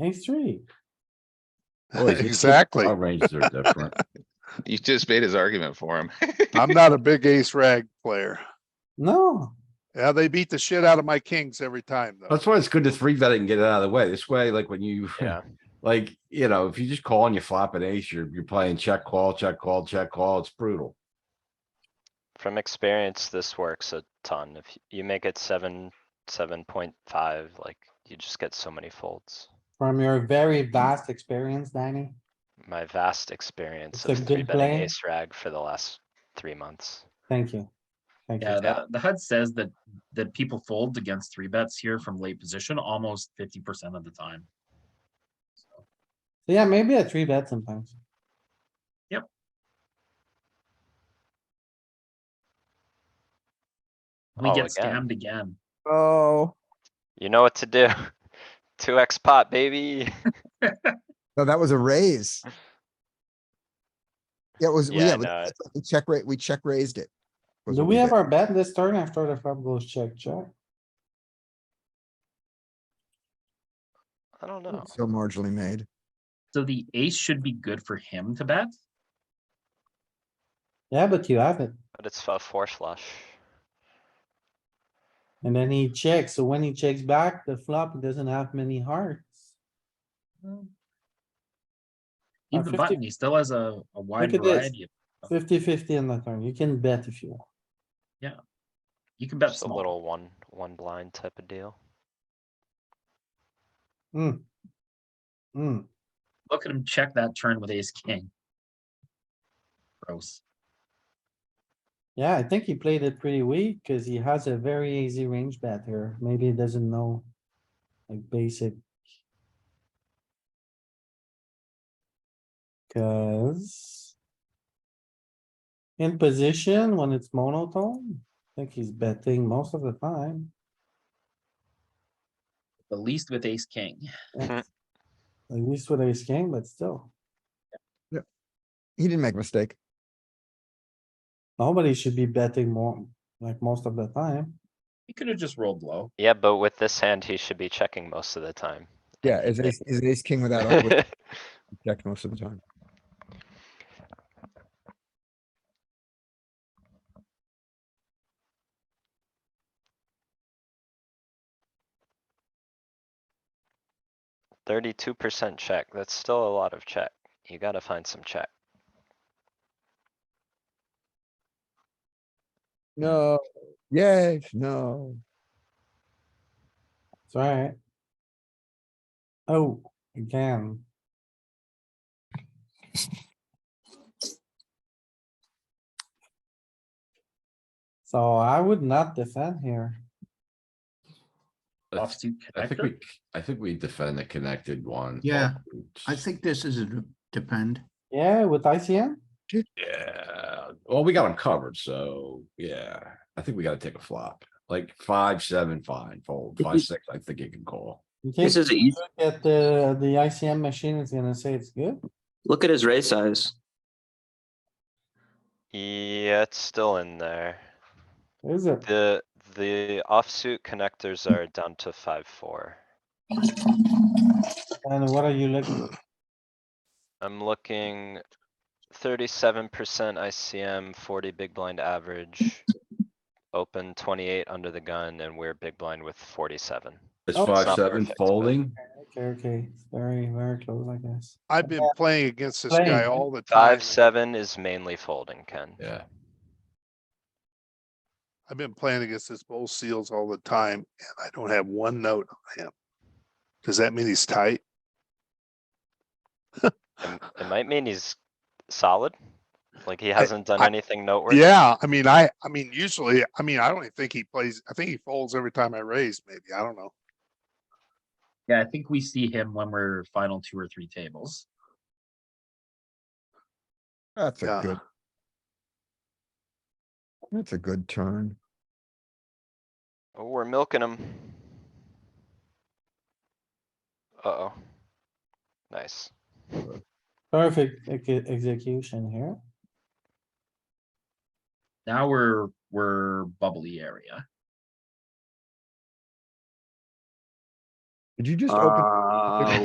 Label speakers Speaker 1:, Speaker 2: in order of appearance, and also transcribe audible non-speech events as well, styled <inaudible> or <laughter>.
Speaker 1: ace three.
Speaker 2: <laughs> Boy, his- his
Speaker 3: Exactly.
Speaker 2: Our ranges are <laughs> different.
Speaker 4: You just made his argument for him.
Speaker 3: I'm not a big ace rag player.
Speaker 1: No,
Speaker 3: Yeah, they beat the shit out of my kings every time though.
Speaker 5: That's why it's good to three bet it and get it out of the way. This way, like when you,
Speaker 6: Yeah.
Speaker 2: <laughs>
Speaker 5: like, you know, if you just call and you flop an ace, you're, you're playing check call, check call, check call. It's brutal.
Speaker 6: From experience, this works a ton. If y- you make it seven, seven point five, like you just get so many folds.
Speaker 1: from your very vast experience, Danny.
Speaker 6: My vast experience
Speaker 1: It's a
Speaker 6: of
Speaker 1: good
Speaker 6: three betting
Speaker 1: play.
Speaker 6: ace rag for the last three months.
Speaker 1: Thank you. Thank
Speaker 7: Yeah,
Speaker 1: you.
Speaker 7: the, the HUD says that, that people fold against three bets here from late position almost fifty percent of the time.
Speaker 1: So yeah, maybe a three bet sometimes.
Speaker 7: We
Speaker 6: Oh,
Speaker 7: get
Speaker 6: again.
Speaker 7: scammed again.
Speaker 8: Oh,
Speaker 6: You know what to do. <laughs> Two X pot, baby.
Speaker 8: no, that was a raise. Yeah, It was,
Speaker 6: Yeah,
Speaker 8: yeah,
Speaker 6: I know.
Speaker 8: but we check rate, we check raised it. was
Speaker 1: Do
Speaker 8: what
Speaker 1: we
Speaker 8: did.
Speaker 1: have our bet this turn after the flop goes check, check?
Speaker 6: I don't know.
Speaker 8: So marginally made.
Speaker 7: So the ace should be good for him to bet.
Speaker 1: Yeah, but you have it.
Speaker 6: But it's a four flush.
Speaker 1: And then he checks. So when he checks back, the flop doesn't have many hearts.
Speaker 7: He's
Speaker 1: Uh,
Speaker 7: Hmm.
Speaker 1: 50
Speaker 7: the button. He still has a, a wide
Speaker 1: at this.
Speaker 7: variety. of-
Speaker 1: 50-50 on the turn. You can bet if you want.
Speaker 7: You can bet
Speaker 6: Just a
Speaker 7: small.
Speaker 6: little one, one blind type of deal.
Speaker 1: Hmm,
Speaker 7: Look at him check that turn with ace king. Gross.
Speaker 1: yeah, I think he played it pretty weak cuz he has a very easy range bet here. Maybe he doesn't know. Like basic. Cuz. In position when it's monotone, I think he's betting most of the time.
Speaker 7: The least with ace king.
Speaker 1: At least with ace king, but still,
Speaker 8: He didn't make a mistake.
Speaker 1: nobody should be betting more, like most of the time.
Speaker 7: He could have just rolled low.
Speaker 6: Yeah, but with this hand, he should be checking most of the time.
Speaker 8: Yeah, is
Speaker 6: Yeah.
Speaker 8: ace, is ace king without,
Speaker 6: <laughs>
Speaker 8: all- with check most of the time.
Speaker 6: Thirty-two percent check. That's still a lot of check. You gotta find some check.
Speaker 8: No, yes, no.
Speaker 1: It's alright. Oh, again. So I would not defend here.
Speaker 2: I
Speaker 7: Offsuit
Speaker 2: I think
Speaker 7: connector.
Speaker 2: we, I think we defend the connected one.
Speaker 9: Yeah, I think this is a d- depend.
Speaker 1: Yeah, with ICM,
Speaker 2: Yeah, well, we got them covered, so, yeah, I think we gotta take a flop, like five, seven, fine, fold, five, six, I think you can call.
Speaker 1: in
Speaker 10: This
Speaker 1: case you
Speaker 10: is easy.
Speaker 1: look at the, the ICM machine is gonna say it's good.
Speaker 10: Look at his raise size.
Speaker 6: Yeah, it's still in there.
Speaker 1: Is it?
Speaker 6: The, the offsuit connectors are down to five, four.
Speaker 1: And what are you looking?
Speaker 6: I'm looking thirty-seven percent ICM, forty big blind average. Open twenty-eight under the gun and we're big blind with forty-seven.
Speaker 2: It's
Speaker 1: Oh, it's
Speaker 2: five,
Speaker 6: not
Speaker 2: seven
Speaker 6: perfect, but-
Speaker 2: folding,
Speaker 1: Okay, okay, it's very, very close, I guess.
Speaker 3: I've been playing against this guy
Speaker 1: Playing.
Speaker 3: all the time.
Speaker 6: Five, seven is mainly folding, Ken.
Speaker 2: yeah,
Speaker 3: I've been playing against this bull seals all the time and I don't have one note on him. Does that mean he's tight?
Speaker 6: It might mean he's solid, like he hasn't done
Speaker 3: I-
Speaker 6: anything noteworthy.
Speaker 3: Yeah, I mean, I, I mean, usually, I mean, I don't even think he plays, I think he folds every time I raise, maybe, I don't know.
Speaker 7: Yeah, I think we see him when we're final two or three tables.
Speaker 8: That's a
Speaker 3: Yeah.
Speaker 8: good. That's a good turn.
Speaker 6: Oh, we're milking him. Uh-oh. Nice.
Speaker 1: Perfect ex- execution here.
Speaker 7: Now we're, we're bubbly area.
Speaker 8: Did you just open?
Speaker 10: Uh,